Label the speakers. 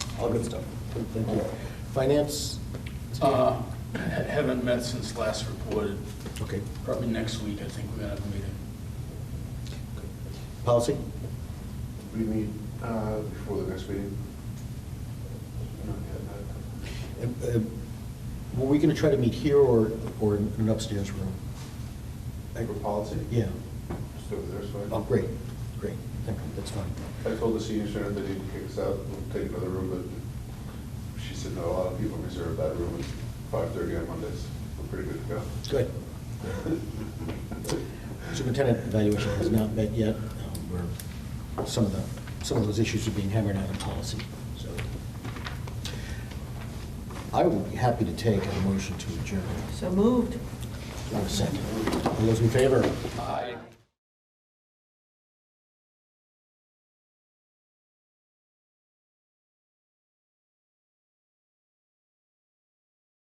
Speaker 1: all good stuff. Thank you. Finance?
Speaker 2: Uh, ha- Haven't met since last reported.
Speaker 1: Okay.
Speaker 2: Probably next week, I think we're gonna have a meeting.
Speaker 1: Policy?
Speaker 3: We meet uh, before the next meeting.
Speaker 1: And, uh, Were we going to try to meet here or, or in an upstairs room?
Speaker 3: For policy?
Speaker 1: Yeah.
Speaker 3: Just over there, so. I-
Speaker 1: Oh, great, great. Okay, That's fine.
Speaker 3: I told the senior center that he'd kick us out, we'll take another room, but she said, no, a lot of people reserve that room at five thirty on Mondays. We're pretty good to go.
Speaker 1: Good. Superintendent evaluation has not met yet. Um, We're, some of the, some of those issues are being hammered out in policy, so. I would be happy to take a motion to adjourn.
Speaker 4: So moved.
Speaker 1: One second. All those in favor?
Speaker 2: Aye.